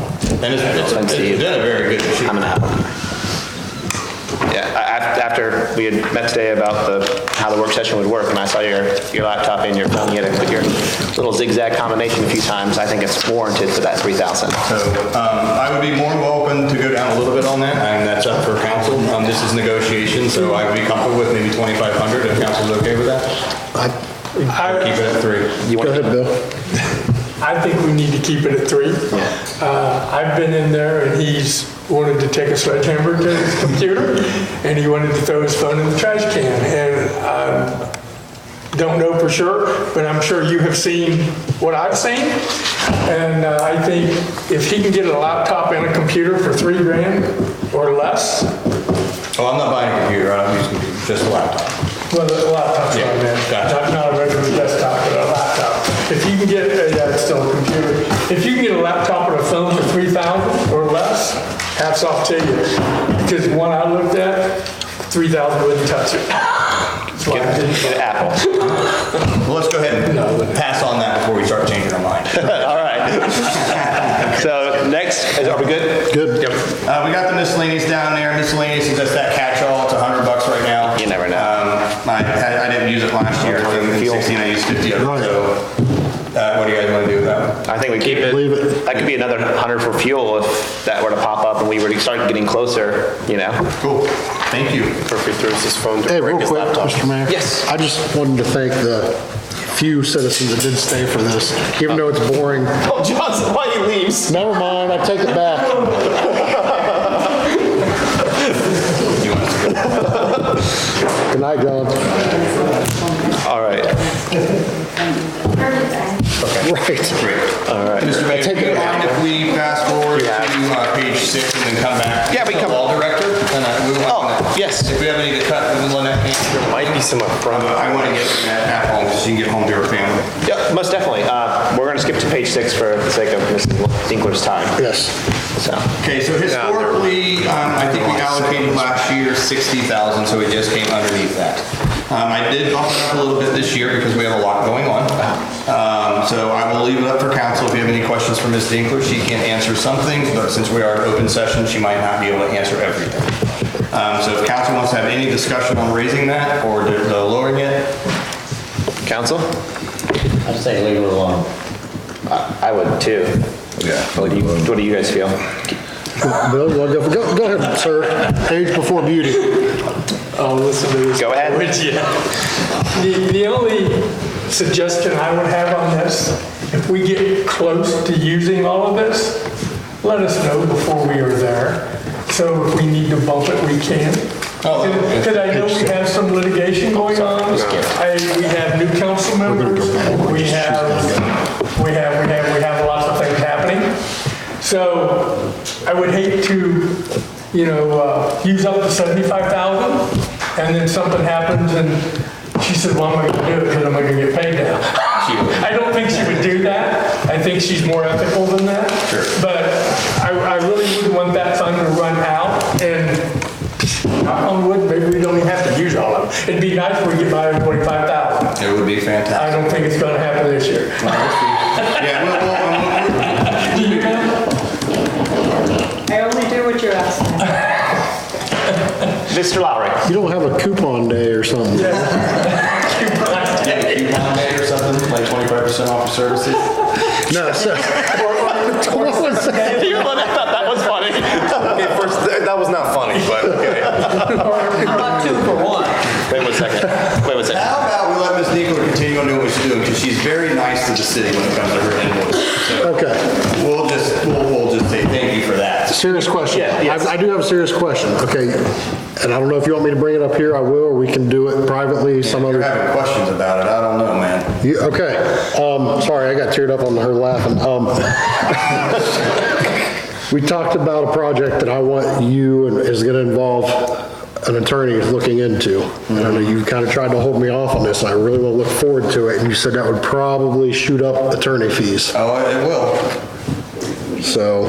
And it's, it's it's Thanks, Steve. done a very good I'm shoot. gonna have one. Yeah, I- I- after we had met today about the, how the work session would work, and I saw your, your laptop and your phone, you had to put your little zigzag combination a few times, I think it's warranted for that 3,000. So, um, I would be more than open to go down a little bit on that, and that's up for council. Um, this is negotiation, so I would be comfortable with maybe 2,500 if council's okay with that. Or Keep it I, at three. You want to I think we need to keep it at three. Uh, I've been in there and he's wanted to take a sledgehammer to his computer and he wanted to throw his phone in the trash can. And I don't know for sure, but I'm sure you have seen what I've seen. And uh, I think if he can get a laptop and a computer for three grand or less, Oh, I'm not buying a computer, I'm using just a laptop. Well, a laptop's what I meant. Yeah, gotcha. Not- Not a regular desktop, but a laptop. If you can get, a- yeah, it's still a computer. If you can get a laptop and a phone for 3,000 or less, hats off to you. Because one I looked at, 3,000 wouldn't touch it. That's why I didn't- Get an Apple. Well, let's go ahead and pass on that before we start changing our mind. All right. So next, is- are we good? Good. Yep. Uh, we got the miscellaneous down there. Miscellaneous is just that catch-all. It's a hundred bucks right now. You never know. Um, I, I I didn't use it last year. In sixteen, I used fifty of it, so. Uh, what do you guys want to do with that one? I think we keep it. Leave it. That could be another 100 for fuel if that were to pop up and we were to start getting closer, you know? Cool. Thank you. Murphy throws his phone to Hey, break real his quick, laptop. Mr. Mayor. Yes. I just wanted to thank the few citizens that did stay for this, even though it's boring. Oh, Johnson, why he leaves? Never mind, I take it back. Good night, John. All right, Right. Mr. Mayor, do Take you it. mind if we fast forward to uh, page six and then come back? Yeah, we To come- Law director? And, uh, we want Oh, to- yes. If we have any to cut, we will let that hang. Might be some up front. I want to get that at home so you can get home to your family. yeah, most definitely. Uh, We're going to skip to page six for the sake of Mrs. Winkler's time, Yes. so. Okay, so historically, um, I think we allocated last year 60,000, so it just came underneath that. Um, I did bump it up a little bit this year because we have a lot going on. Um, So I will leave it up for council. If you have any questions for Ms. Dinkler, she can answer some things, but since we are in open session, she might not be able to answer everything. Um, So if council wants to have any discussion on raising that or the- the lowering it, Council? I'd say leave it alone. I would too. Yeah. What do you, what do you guys feel? Bill, you wanna go, go go ahead, sir. Age before beauty. Oh, listen to this. Go ahead. Would ya? The, the only suggestion I would have on this, if we get close to using all of this, let us know before we are there. So if we need to bump it, we can. Oh, okay. Because I know we have some litigation going on. I, we have new council members. We have, we have, we have, we have lots of things happening. So I would hate to, you know, uh, use up the 75,000 and then something happens and she said, well, I'm not gonna do it because I'm not gonna get paid now. I don't think she would do that. I think she's more ethical than that. But I, I really wouldn't want that fund to run out and knock on wood, maybe we don't even have to use all of it. It'd be nice if we get by with 25,000. it would be I fantastic. don't think it's gonna happen this year. Yeah, we'll- we'll- we'll- Do you know? I only do what you're asking. Mr. Lowry? You don't have a coupon day or something? yeah, if you want to or something, like 25% off of services. No, sir. I thought that was funny. Okay, first, that that was not funny, but okay. How about two for one? Wait one second, wait one second. How about we let Ms. Nicola continue on doing what she's doing, because she's very nice to the city when it comes to her invoice. So Okay. We'll just, we'll, we'll just say thank you for that. Serious question. Yeah, yes. I I do have a serious question, okay? And I don't know if you want me to bring it up here, I will, or we can do it privately some You're other. having questions about it, I don't know, man. You- Okay, um, sorry, I got teared up on her laughing. Um, We talked about a project that I want you, and is gonna involve an attorney looking into. And I know you kinda tried to hold me off on this, and I really wanna look forward to it, and you said that would probably shoot up attorney fees, Oh, it will. so.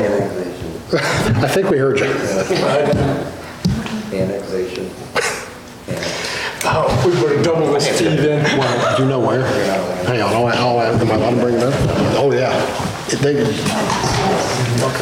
I think we heard you. Annexation. Oh, we would've doubled this fee then. Well, do you know where? Hang on, I'll, I'll, am I allowed to bring it up? Oh, yeah. They,